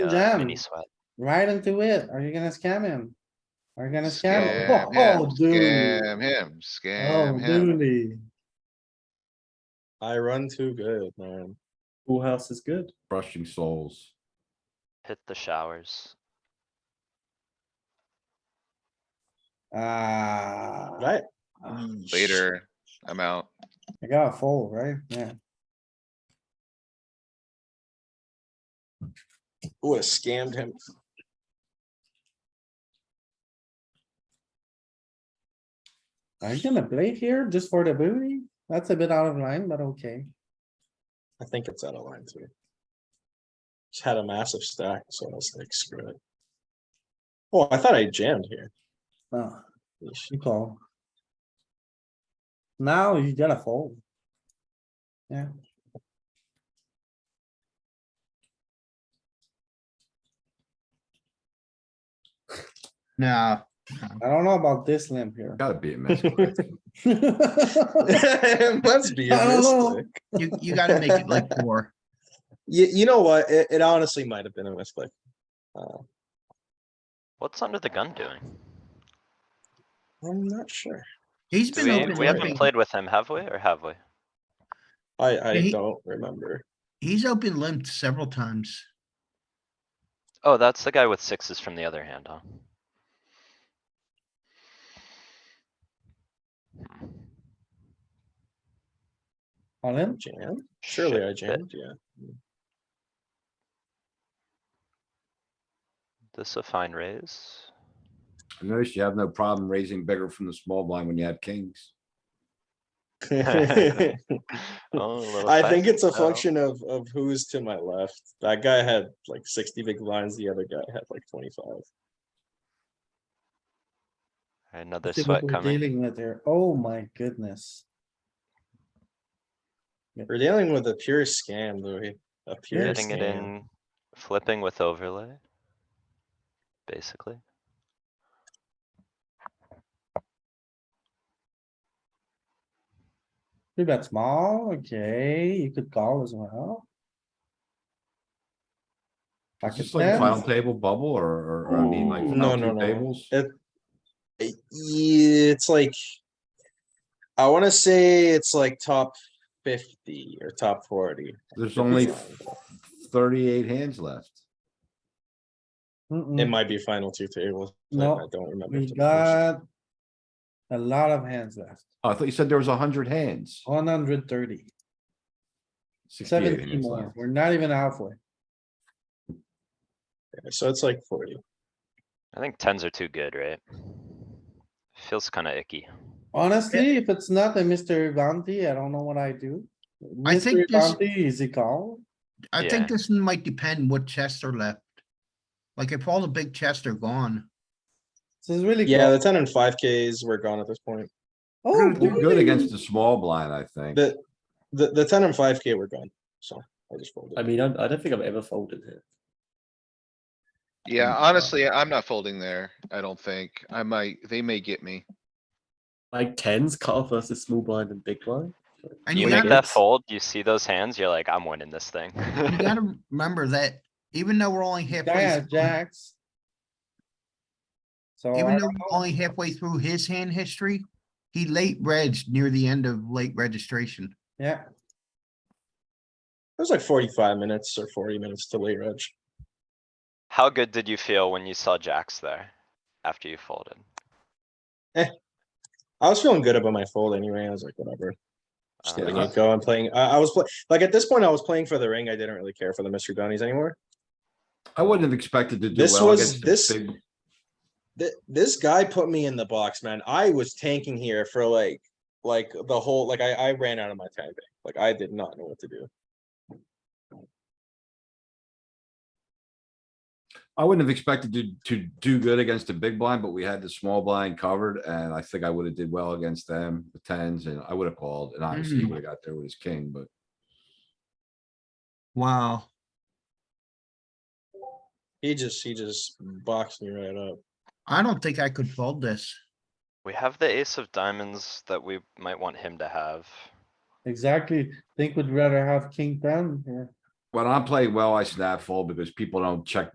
uh, Jam. mini sweat. Right into it. Are you gonna scam him? Are you gonna scam? him? Scam him, Oh, dude. scam him, Oh, scam him. dude. I run too good, man. Full house is good. Crushing souls. Hit the showers. Ah. Right? Later, I'm out. I gotta fold, right? Yeah. Ooh, I scammed him. Are you gonna play here just for the booty? That's a bit out of line, but okay. I think it's out of line too. Just had a massive stack, so I was like, screw it. Oh, I thought I jammed here. No, Yeesh. you call. Now you gotta fold. Yeah. No, I don't know about this limp here. Gotta be a mess. I It Must be. a I don't know. misclick. you, you gotta make it like four. You, you know what? It, it honestly might have been a misclick. Uh, What's under the gun doing? I'm not sure. He's Do been we, open we haven't limping. played with him, have we, or have we? I, I He- don't remember. He's open limped several times. Oh, that's the guy with sixes from the other hand, huh? All in? Jam? Surely I Shit, that- jammed, yeah. This a fine raise. I noticed you have no problem raising bigger from the small blind when you have kings. I Oh, little think five it's a and oh. function of, of who's to my left. That guy had like sixty big blinds, the other guy had like twenty-five. Another See what sweat we're coming. Dealing with here. Oh my goodness. We're dealing with a pure scam, Louis, a pure Getting it scam. in, flipping with overlay. Basically. You bet small, okay, you could call as well. It's Pocket just like a final tens, table bubble or, or- or I mean like Ooh. final No, no, two no. tables? It- I- yeah, It's like, I wanna say it's like top fifty or top forty. There's only thirty-eight hands left. It mm-mm, might be final two tables. I- No, I don't remember. Mm. We to the person. got a lot of hands left, Oh, I thought you said there was hundred hands. Oh, one hundred thirty, 68 seventy hands more, left. we're not even halfway. So it's like forty. I think tens are too good, right? Feels kinda icky. Honestly, if it's not a Mr. Bounty, I don't know what I do. I think Mr. this- Bounty is a call, I Yeah. think this might depend what chests are left. Like if all the big chests are gone, this is really. Yeah, call. the ten and five Ks were gone at this point. Oh, We're gonna do good really? against the small blind, I think. The, the, the ten and five K were gone, so I just folded. I mean, I'm, I don't think I've ever folded here. Yeah, honestly, I'm not folding there, I don't think. I might, they may get me. Like tens, cut versus small blind and big blind. and You you make gotta, that Yes. fold, you see those hands, you're like, I'm winning this thing. you gotta remember that even though we're only halfway, Yeah, through- jacks. So. I even though don't know. we're only halfway through his hand history, he late reg near the end of late registration. Yeah, It was like forty-five minutes or forty minutes to late reg. How good did you feel when you saw jacks there? After you folded? I was feeling good about my fold anyway. I was like, whatever. Just Uh, letting it go. I'm playing. I, I was play, like at this point, I was playing for the ring. I didn't really care for the mystery bounties anymore. I wouldn't have expected to do This well was- against this- the big. Th- this guy put me in the box, man. I was tanking here for like, like the whole, like I, I ran out of my tank. Like I did not know what to do. I wouldn't have expected to, to do good against the big blind, but we had the small blind covered and I think I would have did well against them, the tens, and I would have called and obviously he Mm. would have got there with his king, but. Wow. He just, he just boxed me right up. I don't think I could fold this. We have the ace of diamonds that we might want him to have. exactly. Think we'd rather have king ten here. When I play well, I snap fold because people don't check